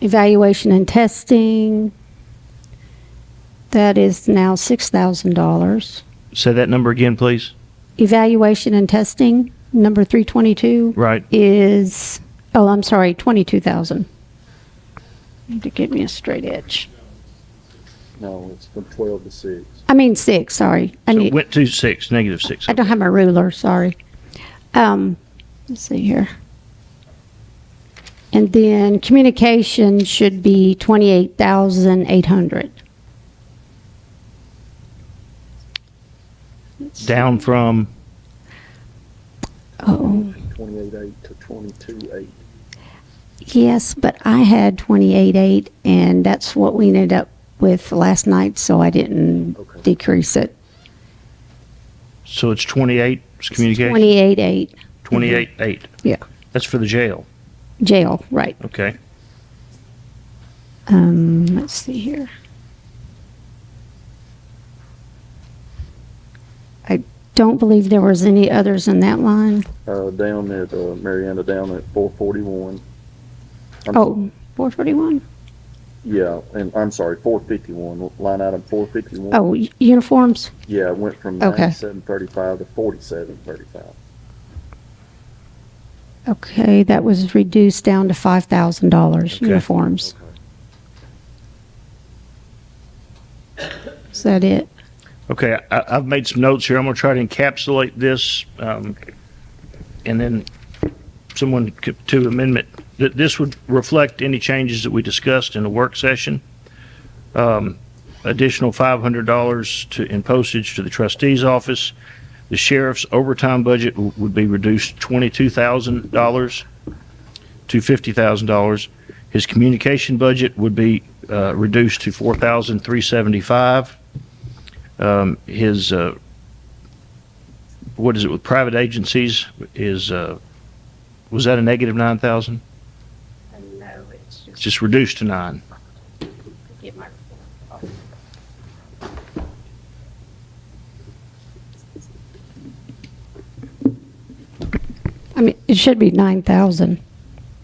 evaluation and testing. That is now $6,000. Say that number again, please. Evaluation and testing, number 322, Right. is, oh, I'm sorry, 22,000. Need to give me a straight edge. No, it's from twelve to six. I mean, six, sorry. I So need- it went to six, negative six. I don't have my ruler, sorry. Um, let's see here. And then communication should be twenty-eight thousand eight hundred. Down from, Oh, Twenty-eight eight to twenty-two eight. yes, but I had twenty-eight eight, and that's what we ended up with last night, so I didn't Okay. decrease it. so it's 28, it's communication, Twenty-eight eight, 28, 8. Yeah. That's for the jail. jail, right. Okay. Um, let's see here. I don't believe there was any others in that line. Uh, down at, uh, Mariana, down at four forty-one. Oh, 441? Yeah, and I'm sorry, four fifty-one, line item four fifty-one. Oh, u- uniforms? Yeah, it went from Okay. ninety-seven thirty-five to forty-seven thirty-five. Okay, that was reduced down to $5,000 Okay. uniforms. Is that it? Okay, I, I've made some notes here. I'm going to try to encapsulate this, um, and then someone could- to amendment. That this would reflect any changes that we discussed in the work session. Um, additional five hundred dollars to in postage to the trustee's office. The sheriff's overtime budget w- would be reduced twenty-two thousand dollars to fifty thousand dollars. His communication budget would be uh, reduced to four thousand three seventy-five um, his uh, what is it with private agencies is uh, was that a negative nine thousand? No, it's just Just reduced to nine. get my I mean, it should be 9,000.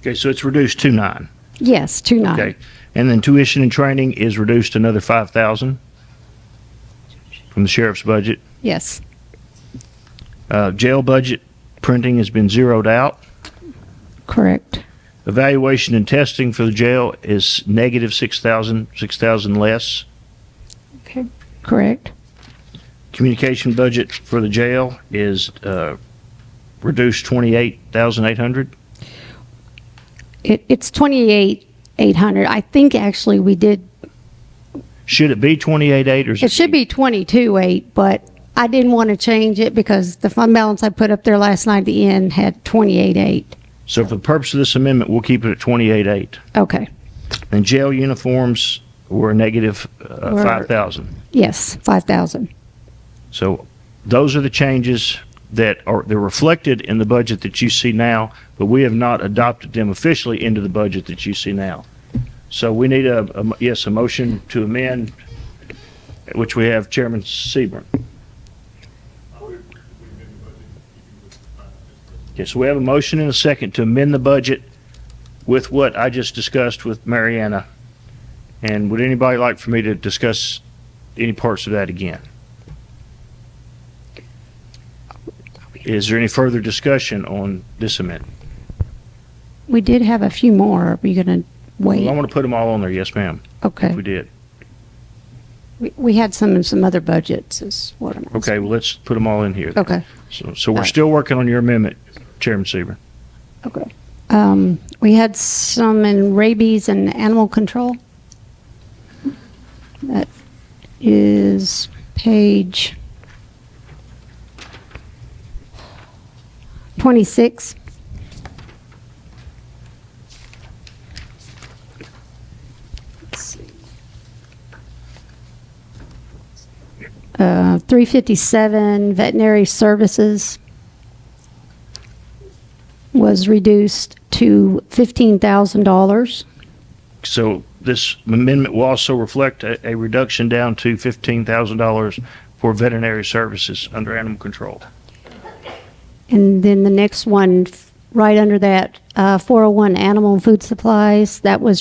Okay, so it's reduced to nine. Yes, two nine. Okay, and then tuition and training is reduced to another five thousand from the sheriff's budget. Yes. Uh, jail budget printing has been zeroed out. Correct. Evaluation and testing for the jail is negative six thousand, six thousand less. Okay. Correct. Communication budget for the jail is uh, reduced twenty-eight thousand eight hundred. It, it's 28,800. I think actually we did Should it be twenty-eight eight or? is It should be twenty-two eight, but I didn't want to change it because the fund balance I put up there last night at the end had twenty-eight eight. So for the purpose of this amendment, we'll keep it at twenty-eight eight. Okay, And jail uniforms were a negative uh, Were- five thousand. yes, five thousand. So those are the changes that are, they're reflected in the budget that you see now, but we have not adopted them officially into the budget that you see now. So we need a, a mo- yes, a motion to amend, which we have Chairman Seaborn. Okay, so we have a motion and a second to amend the budget with what I just discussed with Mariana. And would anybody like for me to discuss any parts of that again? Is there any further discussion on this amendment? We did have a few more. Are we gonna I wait? want to put them all on there. Yes, ma'am. Okay, We did. we, we had some in some other budgets is what I'm. Okay, well, let's put them all in here. Okay, So, so we're still working on your amendment, Chairman Seaver. okay. Um, we had some in rabies and animal control. That is page twenty-six. Uh, 357 veterinary services was reduced to $15,000. So this amendment will also reflect a, a reduction down to fifteen thousand dollars for veterinary services under animal control. And oh then the next one, f- right under that, uh, 401 animal and food supplies, that was